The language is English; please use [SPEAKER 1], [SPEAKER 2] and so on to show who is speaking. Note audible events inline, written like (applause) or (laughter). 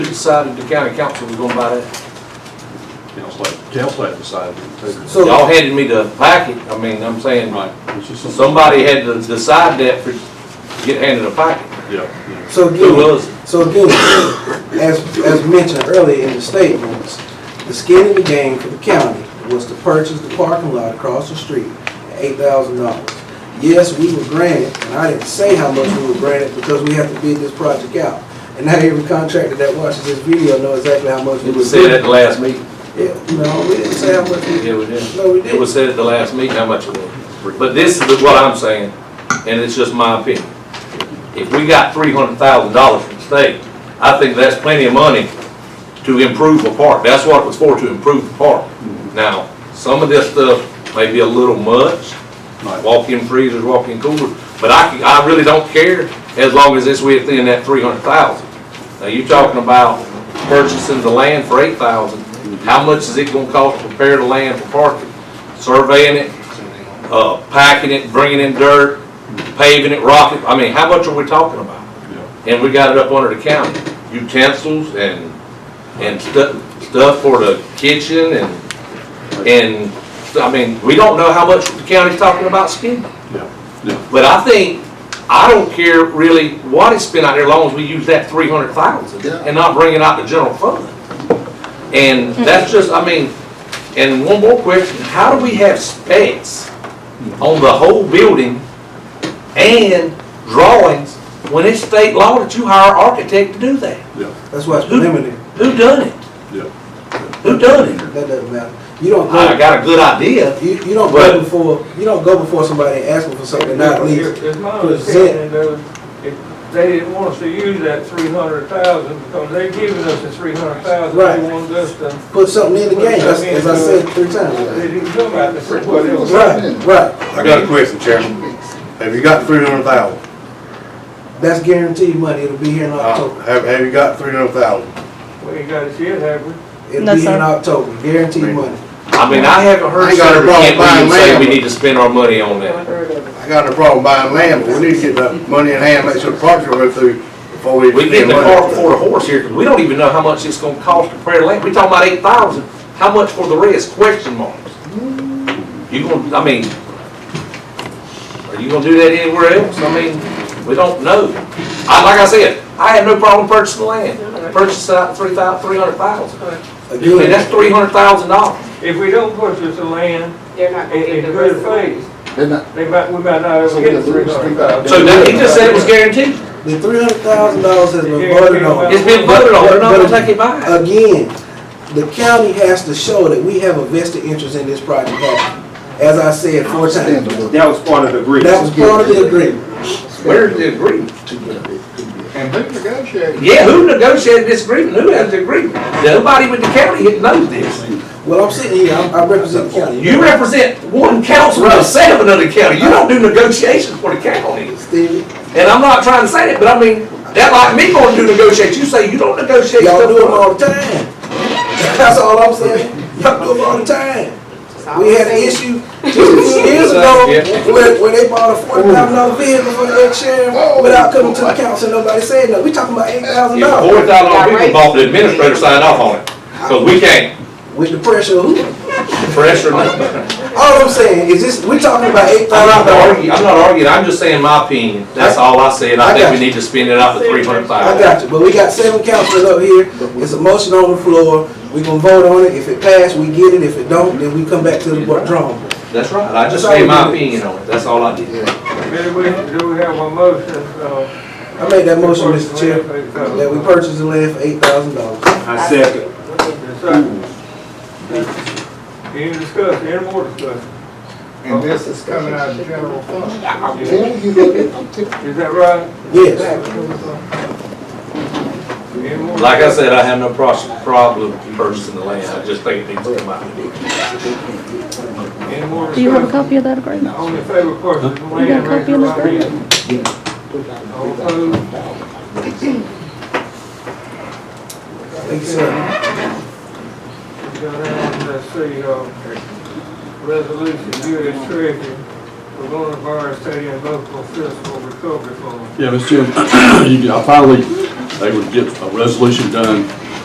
[SPEAKER 1] decided the county council was gonna buy that?
[SPEAKER 2] Council, had- council had decided to take
[SPEAKER 3] So-
[SPEAKER 2] it.
[SPEAKER 1] Y'all handed me the packet, I mean, I'm saying,
[SPEAKER 2] Right. It's just some-
[SPEAKER 1] somebody had to decide that for, get handed a packet.
[SPEAKER 2] Yeah, yeah.
[SPEAKER 3] So
[SPEAKER 1] Who
[SPEAKER 3] again,
[SPEAKER 1] was? it?
[SPEAKER 3] so again, as, as mentioned earlier in the statements, the skin in the game for the county was to purchase the parking lot across the street, eight thousand dollars. Yes, we were granted, and I didn't say how much we were granted because we have to bid this project out. And now every contractor that watches this video know exactly how much we
[SPEAKER 1] It
[SPEAKER 3] were
[SPEAKER 1] was said at
[SPEAKER 3] bid.
[SPEAKER 1] the last meeting.
[SPEAKER 3] Yeah, no, we didn't say how much we.
[SPEAKER 1] Yeah, we did.
[SPEAKER 3] No, we
[SPEAKER 1] It was
[SPEAKER 3] didn't.
[SPEAKER 1] said at the last meeting how much it was. But this is what I'm saying, and it's just my opinion. If we got three hundred thousand dollars from the state, I think that's plenty of money to improve a park. That's what it was for, to improve the park. Now, some of this stuff may be a little much,
[SPEAKER 2] Right.
[SPEAKER 1] walk-in freezers, walk-in coolers, but I, can- I really don't care as long as it's within that three hundred thousand. Now, you're talking about purchasing the land for eight thousand, how much is it gonna cost to prepare the land for parking? Surveying it, uh, packing it, bringing in dirt, paving it, rocking, I mean, how much are we talking about?
[SPEAKER 2] Yeah.
[SPEAKER 1] And we got it up under the county, utensils and, and stuff, stuff for the kitchen and, and, I mean, we don't know how much the county's talking about spending.
[SPEAKER 2] Yeah, yeah,
[SPEAKER 1] But I think, I don't care really what it's spent out there, as long as we use that three hundred thousand
[SPEAKER 4] Yeah.
[SPEAKER 1] and not bring it out the general fund. And that's just, I mean, and one more question, how do we have specs on the whole building and drawings when it's state law that you hire an architect to do that?
[SPEAKER 2] yeah,
[SPEAKER 3] That's why it's preliminary.
[SPEAKER 1] Who done it?
[SPEAKER 2] yeah.
[SPEAKER 1] Who done it?
[SPEAKER 3] That doesn't matter. You don't go.
[SPEAKER 1] I got a good idea.
[SPEAKER 3] You, you don't
[SPEAKER 1] But-
[SPEAKER 3] go before, you don't go before somebody asking for something, not least.
[SPEAKER 5] It's my
[SPEAKER 3] present.
[SPEAKER 5] understanding though, if they didn't want us to use that three hundred thousand, because they giving us the three hundred thousand,
[SPEAKER 3] Right.
[SPEAKER 5] they wanted us to,
[SPEAKER 3] Put something in the game, that's, as I said three times.
[SPEAKER 5] they didn't come out and say what
[SPEAKER 4] Well,
[SPEAKER 5] it
[SPEAKER 4] it was-
[SPEAKER 5] was.
[SPEAKER 3] Right, right.
[SPEAKER 6] I got a question, Chairman. Have you got three hundred thousand?
[SPEAKER 3] That's guaranteed money, it'll be here in October.
[SPEAKER 6] Have, have you got three hundred thousand?
[SPEAKER 5] We ain't got it yet, have we?
[SPEAKER 3] It'll
[SPEAKER 7] No,
[SPEAKER 3] be here in
[SPEAKER 7] sir.
[SPEAKER 3] October, guaranteed
[SPEAKER 6] Right.
[SPEAKER 3] money.
[SPEAKER 1] I mean, I haven't heard
[SPEAKER 6] I got a
[SPEAKER 1] Senator
[SPEAKER 6] problem
[SPEAKER 1] Kent
[SPEAKER 6] buying
[SPEAKER 1] Williams say
[SPEAKER 6] land,
[SPEAKER 1] we
[SPEAKER 6] but-
[SPEAKER 1] need to spend our money on that.
[SPEAKER 6] I got no problem buying land, but we need to get the money in hand, make sure the parks are run through before we.
[SPEAKER 1] We get
[SPEAKER 6] spend
[SPEAKER 1] the
[SPEAKER 6] money.
[SPEAKER 1] cart before the horse here, because we don't even know how much it's gonna cost to prepare land. We talking about eight thousand, how much for the rest, question marks? You gonna, I mean, are you gonna do that anywhere else? I mean, we don't know. I, like I said, I had no problem purchasing land, purchase out three thou, three hundred thousand. I mean,
[SPEAKER 3] Again,
[SPEAKER 1] that's three hundred thousand dollars.
[SPEAKER 5] If we don't purchase the land,
[SPEAKER 8] They're not
[SPEAKER 5] in,
[SPEAKER 8] gonna
[SPEAKER 5] in
[SPEAKER 8] get the
[SPEAKER 5] good
[SPEAKER 8] rest of it.
[SPEAKER 5] faith,
[SPEAKER 4] Then I-
[SPEAKER 5] they might, we might not ever
[SPEAKER 4] So
[SPEAKER 5] get
[SPEAKER 4] we're
[SPEAKER 5] the
[SPEAKER 4] gonna
[SPEAKER 5] three
[SPEAKER 4] lose
[SPEAKER 5] hundred
[SPEAKER 4] three
[SPEAKER 5] thousand.
[SPEAKER 4] thousand.
[SPEAKER 1] So that, he just said it was guaranteed.
[SPEAKER 3] the three hundred thousand dollars has been voted on.
[SPEAKER 1] It's been voted on, we're not gonna take it back.
[SPEAKER 3] Again, the county has to show that we have a vested interest in this project happening. As I said four
[SPEAKER 4] Stand
[SPEAKER 3] times,
[SPEAKER 4] to look.
[SPEAKER 9] That was part of the agreement.
[SPEAKER 3] that was part of the agreement.
[SPEAKER 1] Where's the agreement?
[SPEAKER 4] And who negotiated?
[SPEAKER 1] Yeah, who negotiated this agreement? Who has the agreement? Nobody with the county knows this.
[SPEAKER 3] Well, I'm sitting here, I I represent the county.
[SPEAKER 1] You represent one council of seven of the county. You don't do negotiations for the county.
[SPEAKER 3] Stevie,
[SPEAKER 1] And I'm not trying to say that, but I mean, that like me going to negotiate, you say you don't negotiate
[SPEAKER 3] Y'all
[SPEAKER 1] stuff.
[SPEAKER 3] do them
[SPEAKER 1] for-
[SPEAKER 3] all the time. That's all I'm saying. (laughs) Y'all do them all the time. We had an issue just a few years (laughs) ago when, when they bought a forty thousand dollar vehicle for the ex-sheriff without coming to the council, nobody said nothing. We talking about eight thousand
[SPEAKER 1] Yeah,
[SPEAKER 3] dollars
[SPEAKER 1] four thousand dollar people bought the administrator signed off on it. Cause we can't
[SPEAKER 3] with the pressure of who?
[SPEAKER 1] pressure nothing.
[SPEAKER 3] All I'm saying is this, we talking about
[SPEAKER 1] I'm
[SPEAKER 3] eight thousand
[SPEAKER 1] not
[SPEAKER 3] dollars.
[SPEAKER 1] arguing, I'm not arguing. I'm just saying my opinion. That's all I said. I think we need to spend it out for three hundred
[SPEAKER 3] I
[SPEAKER 1] thousand.
[SPEAKER 3] got you, but we got seven councilors up here. It's a motion on the floor. We gonna vote on it. If it pass, we get it. If it don't, then we come back to the board drawing. board.
[SPEAKER 1] That's right. I just made my opinion on it. That's all I did.
[SPEAKER 5] Maybe we, do we have a motion, uh?
[SPEAKER 3] I made that motion, Mr. Chair, that we purchase the land for eight thousand dollars.
[SPEAKER 9] I second.
[SPEAKER 5] that's right. Any discussion, any more discussion,
[SPEAKER 4] And this is coming out of the general fund. I'm
[SPEAKER 5] Yeah.
[SPEAKER 4] telling you, look, I'm telling
[SPEAKER 5] is that right?
[SPEAKER 3] Yes,
[SPEAKER 5] Any more?
[SPEAKER 1] Like I said, I have no pros- problem purchasing the land, I just think it needs to come out.
[SPEAKER 5] Any more
[SPEAKER 7] Do you have a
[SPEAKER 5] discussion?
[SPEAKER 7] copy of that agreement?
[SPEAKER 5] All in favor, of course, is the
[SPEAKER 7] You got
[SPEAKER 5] land
[SPEAKER 7] a
[SPEAKER 5] raised
[SPEAKER 7] copy of this
[SPEAKER 5] right
[SPEAKER 7] agreement?
[SPEAKER 5] here. All opposed?
[SPEAKER 3] thank you, sir.
[SPEAKER 5] We go down, let's see, uh, resolution, U.S. Treasury, we're going to borrow state and local fiscal recovery
[SPEAKER 2] (clears throat)
[SPEAKER 5] fund.
[SPEAKER 2] Yeah, Mr. Chairman, you can- I finally, they would get a resolution done